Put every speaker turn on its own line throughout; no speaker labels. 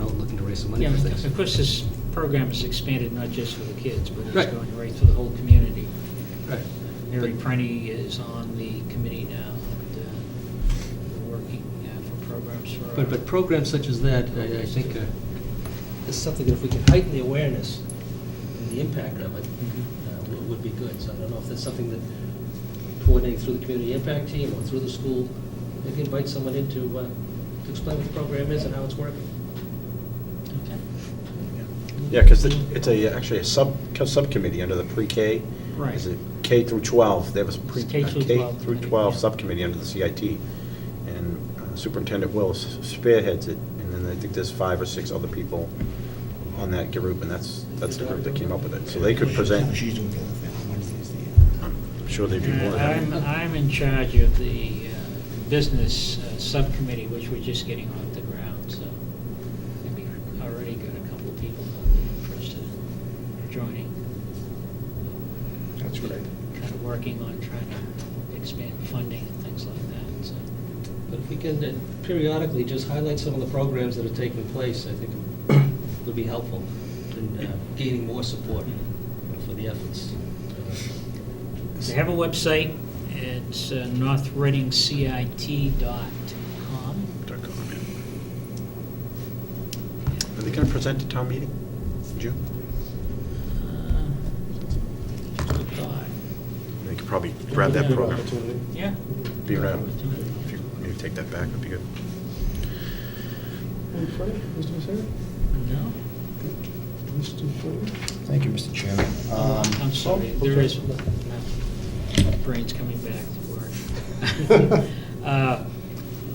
get some money
Yeah,
for
and of
things.
course, this program is expanded not just for the kids, but
Right.
it's going right through the whole community.
Right.
Mary
But-
Prenny is on the committee now, and uh, we're working uh, for programs for.
But, but programs such as that, I, I think, uh, is something that if we can heighten the awareness and the impact of it,
Mm-hmm.
uh, would- would be good. So I don't know if that's something that coordinating through the community impact team or through the school, maybe invite someone in to, uh, to explain what the program is and how it's working.
Okay.
Yeah, because it's a, actually a sub, subcommittee under the pre-K.
Right.
Is it K through 12? There was a pre,
It's K
a
through
K
12
through
committee,
12
yeah.
subcommittee under the CIT. And uh, Superintendent Willis spearheads it, and then I think there's five or six other people on that group, and that's, that's the group that came up with it. So they could present,
She's doing the other thing on Wednesdays, the, uh,
I'm sure they'd be more
And I'm,
than happy.
I'm in charge of the uh, business uh, subcommittee, which we're just getting off the ground, so we already got a couple of people interested in joining.
That's great.
Kind of working on trying to expand funding and things like that, so.
But if we can uh, periodically just highlight some of the programs that are taking place, I think it'll be helpful in uh, gaining more support for the efforts. uh,
They have a website, it's uh, northreadingcit.com.
Are they going to present at town meeting? in June?
Uh, Good thought.
They could probably grab that program.
Yeah.
Be around. If you maybe take that back, would be good.
Any further, Mr. Sarah?
No?
Mr. Ford?
Thank you, Mr. Chairman.
Oh,
Um,
I'm sorry,
oh,
there
okay.
is, my brain's coming back to work. Uh, I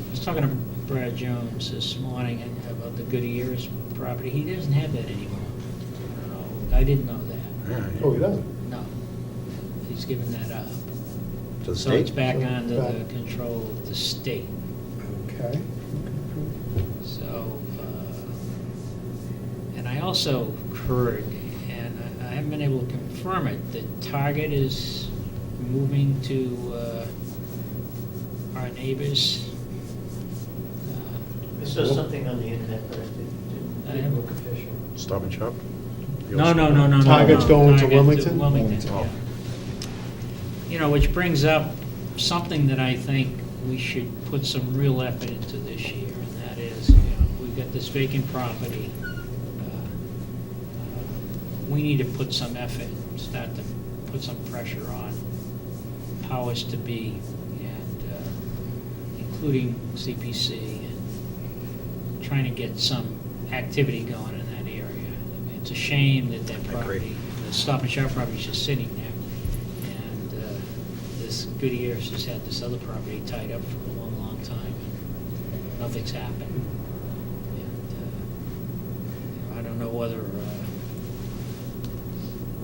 was talking to Brad Jones this morning about the Goodyear's property, he doesn't have that anymore. I don't know. I didn't know that,
All right.
Oh, he doesn't?
no. He's given that up.
To the
So it's
state?
back
So
under the
back.
control of the state,
Okay.
so, uh, and I also heard, and I- I haven't been able to confirm it, that Target is moving to uh, our neighbors. Uh,
I saw something on the internet, but I didn't,
I
didn't
haven't-
look official.
Stop and shop?
No, no, no, no, no. no,
Target's going to
Target
Wilmington?
Wilmington,
Oh.
yeah. You know, which brings up something that I think we should put some real effort into this year, and that is, you know, we've got this vacant property. uh, uh, We need to put some effort, start to put some pressure on powers to be, and uh, including CPC and trying to get some activity going in that area. It's a shame that that
agree.
property, the Stop and Shop property is just sitting there. And uh, this Goodyear's has had this other property tied up for a long, long time. and Nothing's happened. And uh, I don't know whether uh,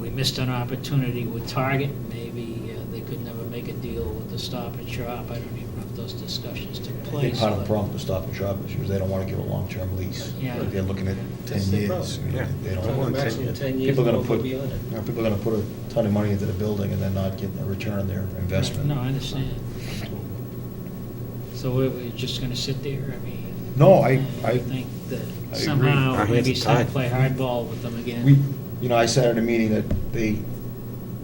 we missed an opportunity with Target. Maybe uh, they could never make a deal with the Stop and Shop. I don't even know if those discussions took
I
place.
think part of the
but-
problem with Stop and Shop is because they don't want to give a long-term lease.
Yeah.
They're looking at 10
That's the
years.
problem.
you know,
Yeah.
They
Don't
don't
want
want,
10 years.
Ten years,
people are
we'll
going to put,
be on it.
you know, people are going to put a ton of money into the building and then not get a return on their investment.
No, I understand. So we're, we're just gonna sit there, I mean?
No, I- I-
think
I
that
agree.
Our
somehow
hands
maybe
are
start
tied.
to play hardball with them again.
We, you know, I sat at a meeting that they,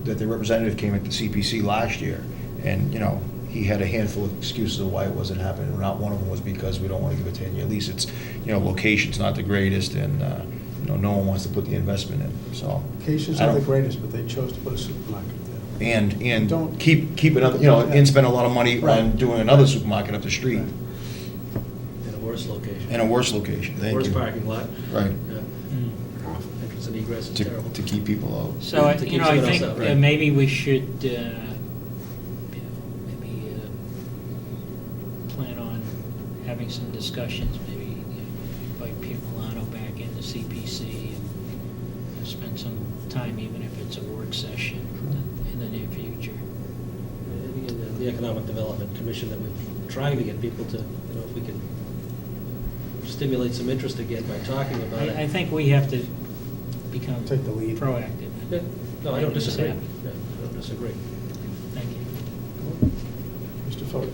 that their representative came at the CPC last year, and, you know, he had a handful of excuses of why it wasn't happening. Not one of them was because we don't want to give a ten-year lease. It's, you know, location's not the greatest, and, uh, you know, no one wants to put the investment in, so.
Cations
I
are the
don't-
greatest, but they chose to put a supermarket there.
And, and
Don't-
keep, keep another, you know, and spend a lot of money on
Right.
doing another supermarket up the street,
Right.
In a worse location.
in a worse location, thank you.
Worse parking lot.
Right,
Yeah,
Mm.
Entrance and egress is
to,
terrible.
to keep people out.
So, I-
To
you
keep
know, I
someone else
think
out,
uh,
right.
maybe we should, uh, you know, maybe uh, plan on having some discussions, maybe you know, invite Pete Milano back into CPC and spend some time, even if it's a work session in the near future.
And again, the- The Economic Development Commission that we're trying to get people to, you know, if we can stimulate some interest again by talking about it.
I, I think we have to become
Take the lead.
proactive.
Yeah, No, I don't
Making this
disagree. Yeah,
happen.
I don't disagree.
Thank you.
Mr. Ford?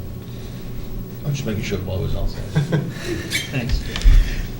I'm just making sure the ball was outside.
Thanks.